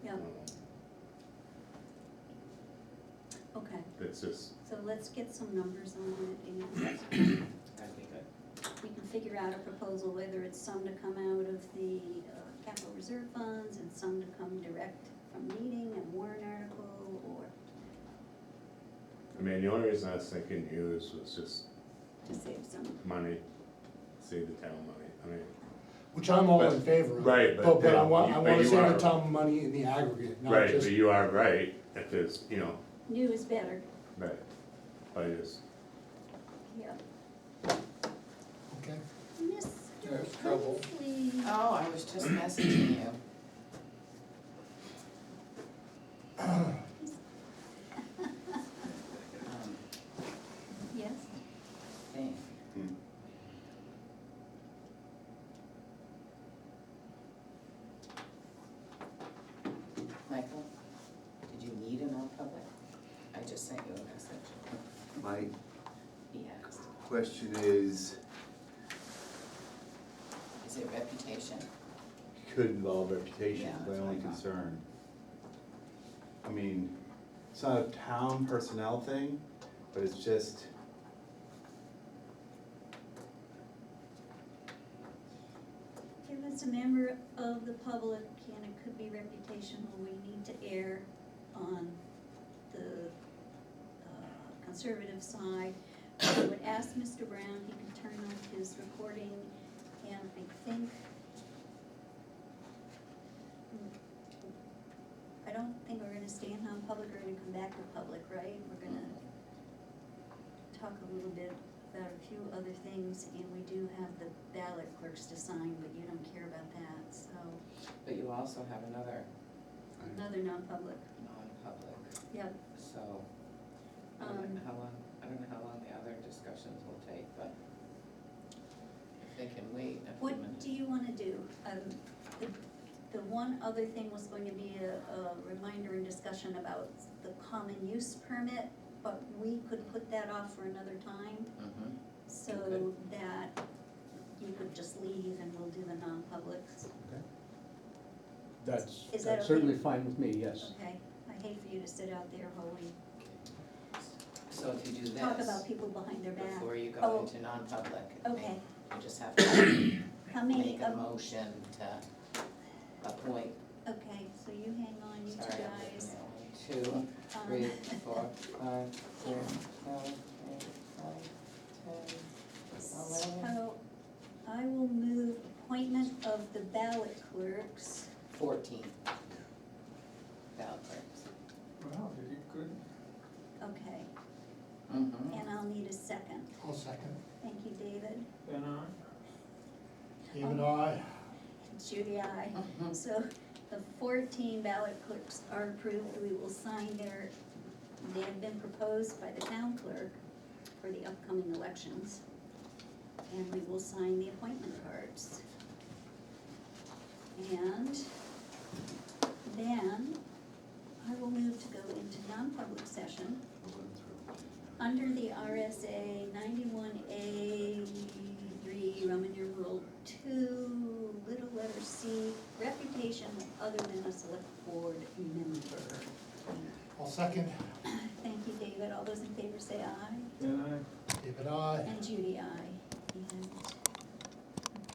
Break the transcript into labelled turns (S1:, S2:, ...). S1: Okay,
S2: That's just,
S1: so let's get some numbers on it and
S3: I think I,
S1: we can figure out a proposal, whether it's some to come out of the uh, capital reserve funds and some to come direct from meeting and warrant article or
S2: I mean, the only reason I was thinking use was just
S1: to save some.
S2: money, save the town money, I mean,
S4: Which I'm all in
S2: But-
S4: favor of.
S2: right, but
S4: But I
S2: then
S4: want,
S2: you-
S4: I
S2: but
S4: wanna
S2: you
S4: save the
S2: are-
S4: town money in the aggregate, not
S2: right,
S4: just,
S2: but you are right, if there's, you know,
S1: New is better,
S2: right, I just,
S1: yeah.
S4: okay?
S1: Mr.
S4: There's trouble.
S1: Humphrey.
S5: Oh, I was just messaging you. Um,
S1: Yes,
S5: thing.
S2: hmm,
S5: Michael, did you need a non-public? I just sent you a message.
S6: My
S5: He asked,
S6: question is,
S5: is it reputation?
S6: could involve reputation,
S5: Yeah,
S6: is
S5: that's
S6: my
S5: what I
S6: only
S5: thought.
S6: concern. I mean, it's not a town personnel thing, but it's just.
S1: if it's a member of the public and it could be reputational, we need to err on the uh, conservative side. I would ask Mr. Brown, he could turn off his recording and I think I don't think we're gonna stay in non-public, we're gonna come back to public, right? We're gonna talk a little bit about a few other things, and we do have the ballot clerks to sign, but you don't care about that, so,
S5: But you also have another
S1: another non-public,
S5: non-public,
S1: yep.
S5: so I don't know
S1: Um,
S5: how long, I don't know how long the other discussions will take, but if they can wait a few
S1: what
S5: minutes.
S1: do you wanna do? Um, the, the one other thing was going to be a, a reminder and discussion about the common use permit, but we could put that off for another time,
S5: Mhm.
S1: so
S5: Okay.
S1: that you could just leave and we'll do the non-publics.
S7: That's,
S1: Is that
S7: that's
S1: okay?
S7: certainly fine with me, yes.
S1: Okay, I hate for you to sit out there holding,
S5: So if you do
S1: talk about
S5: this,
S1: people behind their back.
S5: before you
S1: Oh.
S5: go into non-public,
S1: Okay,
S5: you just have to
S1: how many,
S5: make a
S1: um,
S5: motion to appoint,
S1: okay, so you hang on, you two
S5: sorry, I'm looking
S1: guys.
S5: at one, two,
S1: Um,
S5: three, four, five, six, seven, eight, nine, ten.
S1: So I will move appointment of the ballot clerks.
S5: Fourteen. Ballot clerks.
S3: wow, you did good.
S1: Okay,
S5: Mm-hmm.
S1: and I'll need a second.
S4: I'll second.
S1: Thank you, David.
S3: Then I.
S4: Even I,
S1: Judy, I.
S5: Mm-hmm.
S1: So the fourteen ballot clerks are approved, we will sign their, they have been proposed by the town clerk for the upcoming elections. And we will sign the appointment cards. And then I will move to go into non-public session under the RSA ninety-one A three, Roman numeral two, little letter C, reputation other than a select board member.
S4: I'll second,
S1: Thank you, David. All those in favor say aye,
S3: Then I.
S4: David I.
S1: and Judy, aye. And